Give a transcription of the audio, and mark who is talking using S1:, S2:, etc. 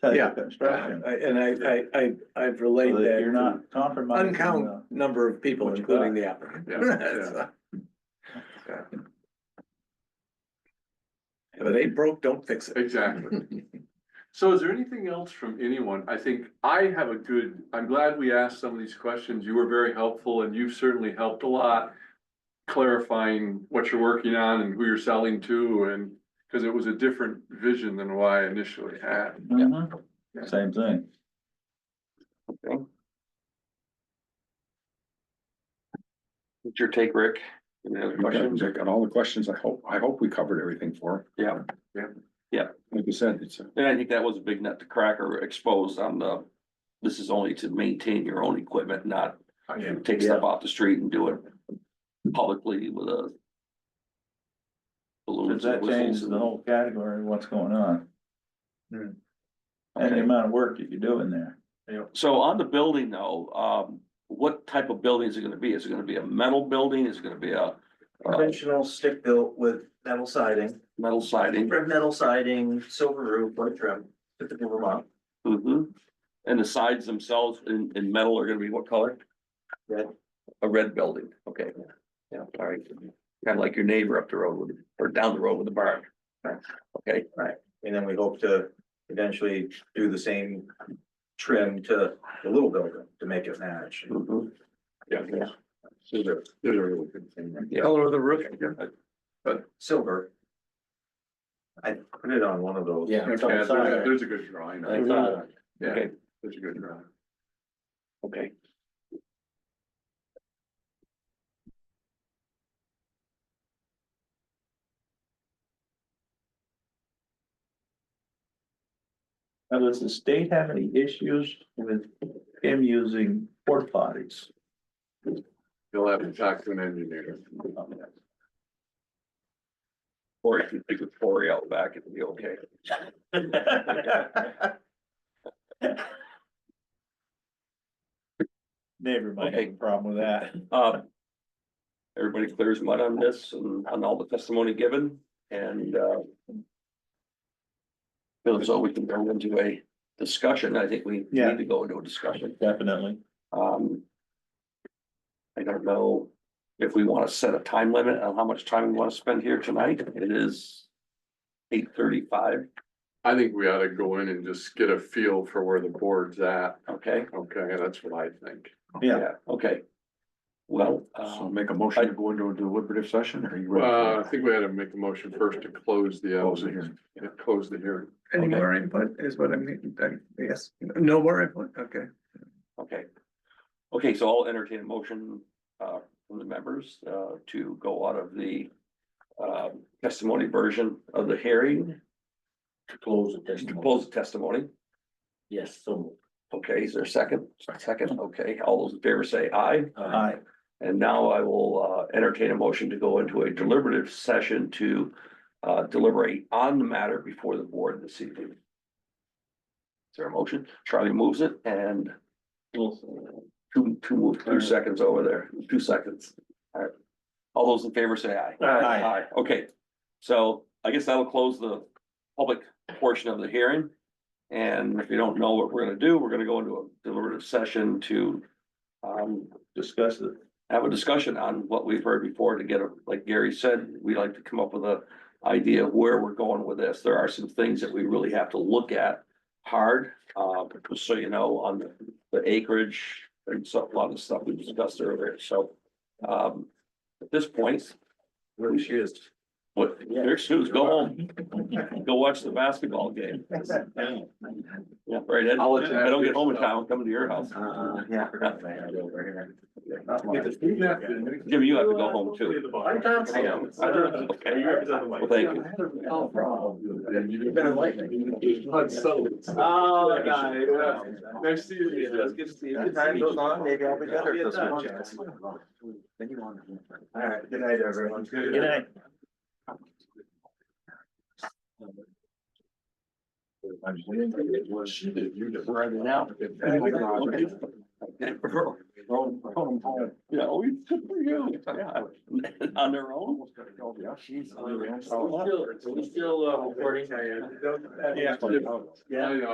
S1: type
S2: Yeah.
S1: of construction.
S2: I- And I, I, I, I've relayed
S1: So
S2: that.
S1: that You're
S2: to
S1: not compromising.
S2: Uncount
S1: the-
S2: number of people,
S1: what you
S2: including the applicant.
S3: Yeah,
S2: That's- If it ain't broke, don't fix it.
S3: Exactly. So is there anything else from anyone? I think I have a good, I'm glad we asked some of these questions. You were very helpful and you've certainly helped a lot clarifying what you're working on and who you're selling to and, because it was a different vision than what I initially had.
S1: Mhm. Same thing.
S4: What's your take, Rick? Any other questions?
S5: I got all the questions. I hope, I hope we covered everything for.
S4: Yeah,
S3: Yeah.
S4: Yeah.
S5: Like you said, it's, a-
S4: and I think that was a big nut to crack or exposed on the, this is only to maintain your own equipment, not take stuff off the street and do it publicly with a
S1: Does
S4: balloons
S1: that
S4: and
S1: change
S4: whistles.
S1: the whole category of what's going on and the
S4: Okay.
S1: amount of work that you do in there?
S4: So on the building though, um, what type of building is it gonna be? Is it gonna be a metal building? Is it gonna be a uh,
S6: Conventional stick built with metal siding,
S4: metal siding?
S6: red metal siding, silver roof, wood trim, typical Vermont.
S4: hmm And the sides themselves in, in metal are gonna be what color?
S6: Red.
S4: A red building, okay. Yeah, all right. Kind of like your neighbor up the road with, or down the road with the barn. Okay,
S6: And then we hope to eventually do the same trim to the little building to make it match.
S4: Mhm.
S5: yeah, there's, there's a really good thing. there.
S4: Yeah.
S3: Color of the roof.
S6: Silver. I put it on one of those.
S2: Yeah.
S1: It's on the side.
S3: There's a good drawing.
S4: I thought,
S3: Yeah,
S4: okay,
S3: there's a good
S4: uh,
S3: drawing.
S4: okay.
S1: Now, does the state have any issues with him using porta potties?
S3: You'll have to talk to an engineer.
S4: Or if you think of Cory out back, it'd be okay.
S1: Neighbor might have a
S4: Okay.
S1: problem with that.
S4: Uh, everybody clears mud on this and on all the testimony given and, uh, feels as though we can go into a discussion. I think we
S1: Yeah.
S4: need to go into a discussion.
S1: Definitely.
S4: Um. I don't know if we want to set a time limit on how much time we want to spend here tonight. It is eight thirty-five,
S3: I think we ought to go in and just get a feel for where the board's at.
S4: okay?
S3: Okay, that's what I think.
S1: Yeah.
S4: Okay. Well,
S6: Uh,
S5: So
S4: um,
S5: make a motion to go into a deliberative session or are you ready?
S3: Well, I
S5: for
S3: think we had to make a motion first to close the, uh,
S5: Close the hearing.
S3: yeah, close the hearing.
S2: Any
S4: Okay.
S2: more input is what I mean, I guess, no more input, okay.
S4: okay. Okay, so I'll entertain a motion uh from the members uh to go out of the. Um, testimony version of the hearing,
S7: to close the
S4: to
S7: testimony.
S4: close the testimony.
S7: Yes, so moved.
S4: Okay, is there a second? Second, okay. All those in favor say aye.
S7: Aye.
S1: Aye.
S4: And now I will uh, entertain a motion to go into a deliberative session to uh, deliberate on the matter before the board this evening. Is there a motion? Charlie moves it and two, two, move- two seconds over there, two seconds. All right. All those in favor say aye.
S1: Aye.
S4: Okay, so I guess that'll close the public portion of the hearing. And if you don't know what we're gonna do, we're gonna go into a deliberative session to um,
S1: Discuss it.
S4: have a discussion on what we've heard before to get, a like Gary said, we like to come up with a idea of where we're going with this. There are some things that we really have to look at hard, uh, but so you know, on the- the acreage and so, a lot of stuff we discussed earlier, so. Um, at this point,
S6: Where she is.
S4: what, there's who's go home, go watch the basketball game. Yeah, right, Ed?
S3: I'll let you have
S4: I don't get home in
S3: yourself.
S4: time, I'm coming to your house.
S6: Uh, yeah, I forgot my head over here.
S4: Jimmy, you have to go home too.
S6: I'm Thompson.
S4: I know. I know. Okay. Well, thank you.
S6: Oh, problem.
S3: You've
S6: been enlightening.
S3: Oh, Nice to see you.
S6: Let's get to see. As time goes on, maybe I'll be better at this one. All right, good night, everyone.
S3: Good
S1: Good night.
S4: Yeah, oh, we, good for you. Yeah, on their own.
S5: Oh,
S7: Are we still, are we still uh, recording?
S3: Yeah.
S5: Yeah.
S3: Yeah.